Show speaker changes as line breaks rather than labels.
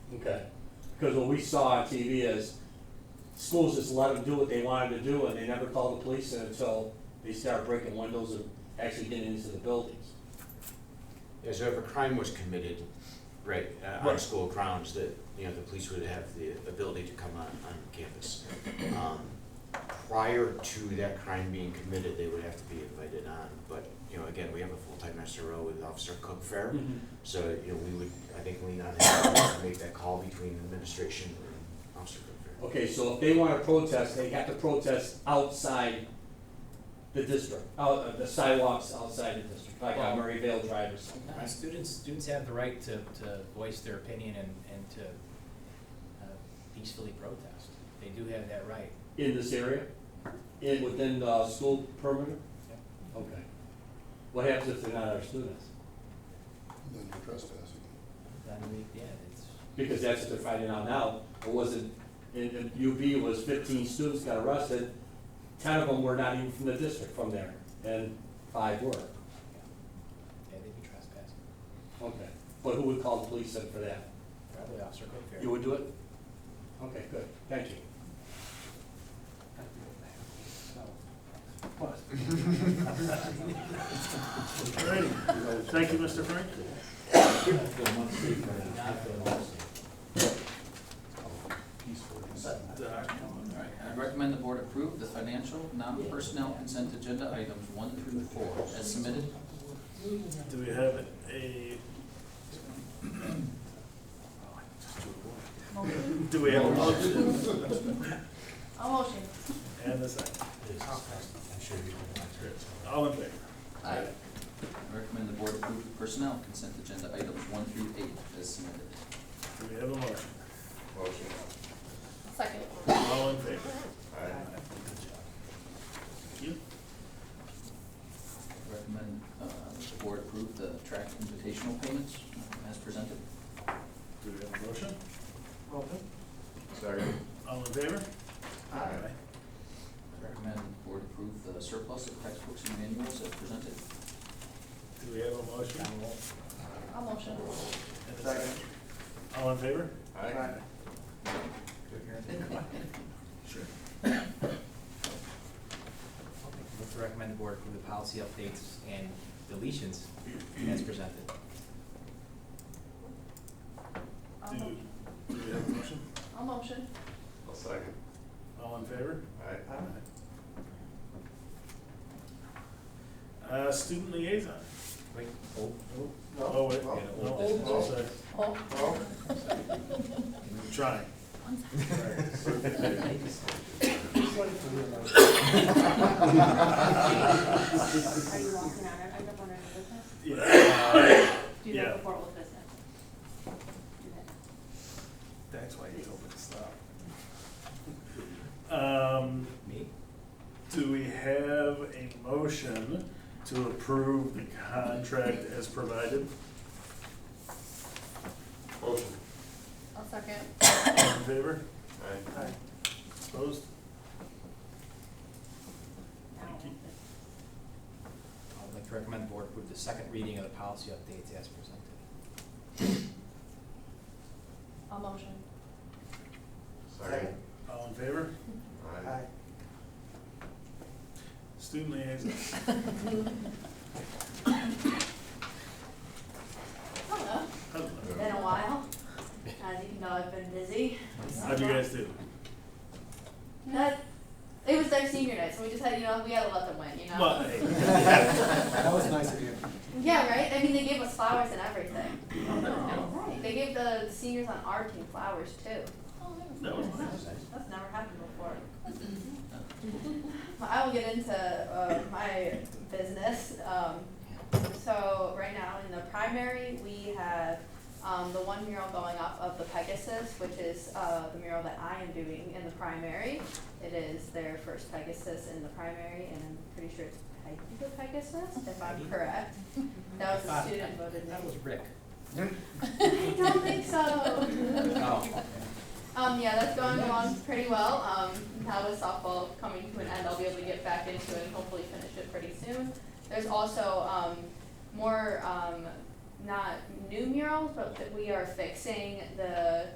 Okay, because what we saw on TV is schools just let them do what they wanted to do and they never called the police in until they started breaking windows and actually getting into the buildings.
Yeah, so if a crime was committed, right, uh, on
Right.
school grounds, that, you know, the police would have the ability to come on, on campus. Um, Prior to that crime being committed, they would have to be invited on, but, you know, again, we have a full-time SRO with Officer Cook Fair. So, you know, we would, I think, lean on him to make that call between administration and Officer Cook Fair.
Okay, so if they wanna protest, they have to protest outside the district, out, uh, the sidewalks outside the district, like on
Well-
Murrayvale Drive or something.
Uh, Students, students have the right to, to voice their opinion and, and to uh, peacefully protest. They do have that right.
In this area, in, within the school perimeter?
Yep.
Okay. What happens if they're not our students?
Then you're trespassing.
I mean, yeah, it's,
because that's what they're finding out now. It wasn't, in, in UB was fifteen students got arrested, ten of them were not even from the district from there, and five were.
yeah, they'd be trespassing.
Okay, but who would call the police then for that?
Probably Officer Cook
You
Fair.
would do it? Okay, good, thank you.
Great. Thank you, Mr. Frank.
I recommend the board approve the financial, non-personnel consent agenda items one through four as submitted.
Do we have a?
Motion.
Do we have a motion?
A motion.
And a second.
I'm sure you can answer it.
All in favor?
I recommend the board approve the personnel consent agenda items one through eight as submitted.
Do we have a motion?
Second.
All in favor? Thank you.
Recommend, uh, the board approve the track invitational payments uh, as presented.
Do we have a motion?
Sorry.
All in favor? Aye.
Recommend the board approve the surplus of textbooks and manuals as presented.
Do we have a motion?
A motion.
And a second. All in favor? Sure.
Let's recommend the board approve the policy updates and deletions as presented.
A
Do,
mo-
do we have a motion?
a motion.
All in favor? Aye. Uh, student liaison.
Wait, oh,
Oh, wait, yeah, no, I'm sorry.
Oh.
I'm trying.
Are you walking on it? I don't want any business.
Yeah.
Do you
Yeah.
have report with business? Do that.
That's why you told me to stop. Um,
me?
do we have a motion to approve the contract as provided?
A second.
All in favor? Aye. Opposed?
Now.
Thank you.
I'd like to recommend the board approve the second reading of the policy updates as presented.
A motion.
Sorry.
All in favor?
Aye.
Student liaison.
Hello.
Hello.
Been a while. As you know, I've been busy.
How'd you guys do?
That, it was their senior night, so we just had, you know, we had to let them win, you know?
Well, hey.
That was nice of you.
Yeah, right? I mean, they gave us flowers and everything. Right. They gave the seniors on our team flowers too.
That was nice.
That's never happened before. Well, I will get into uh, my business. Um, so right now in the primary, we have um, the one mural going up of the Pegasus, which is uh, the mural that I am doing in the primary. It is their first Pegasus in the primary, and I'm pretty sure it's Peggy the Pegasus, if I'm correct. That was a student voted
That was
name.
Rick.
I don't think so.
Oh.
Um, yeah, that's going along pretty well. Um, now with softball coming to an end, I'll be able to get back into it and hopefully finish it pretty soon. There's also, um, more, um, not new murals, but that we are fixing the